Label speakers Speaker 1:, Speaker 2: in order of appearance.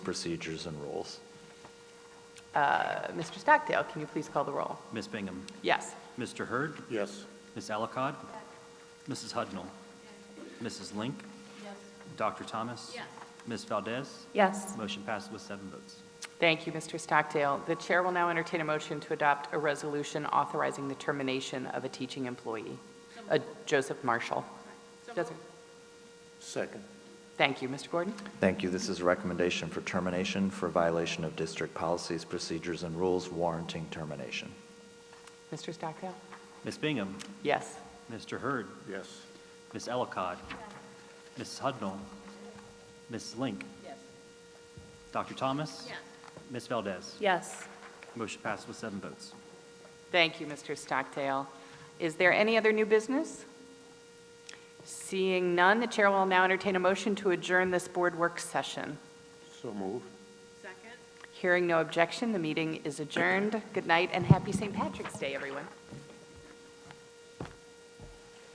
Speaker 1: procedures and rules.
Speaker 2: Uh, Mr. Stockdale, can you please call the roll?
Speaker 3: Ms. Bingham.
Speaker 2: Yes.
Speaker 3: Mr. Hurd.
Speaker 4: Yes.
Speaker 3: Ms. Ellicott. Mrs. Hudnall. Mrs. Link. Dr. Thomas. Ms. Valdez.
Speaker 2: Yes.
Speaker 3: Motion passes with seven votes.
Speaker 2: Thank you, Mr. Stockdale. The chair will now entertain a motion to adopt a resolution authorizing the termination of a teaching employee, uh, Joseph Marshall. Joseph-
Speaker 4: Second.
Speaker 2: Thank you, Mr. Gordon.
Speaker 1: Thank you. This is a recommendation for termination for violation of district policies, procedures, and rules warranting termination.
Speaker 2: Mr. Stockdale?
Speaker 3: Ms. Bingham.
Speaker 2: Yes.
Speaker 3: Mr. Hurd.
Speaker 4: Yes.
Speaker 3: Ms. Ellicott. Mrs. Hudnall. Mrs. Link. Dr. Thomas. Ms. Valdez.
Speaker 2: Yes.
Speaker 3: Motion passes with seven votes.
Speaker 2: Thank you, Mr. Stockdale. Is there any other new business? Seeing none, the chair will now entertain a motion to adjourn this board work session.
Speaker 4: So move.
Speaker 2: Hearing no objection, the meeting is adjourned. Good night and happy St. Patrick's Day, everyone.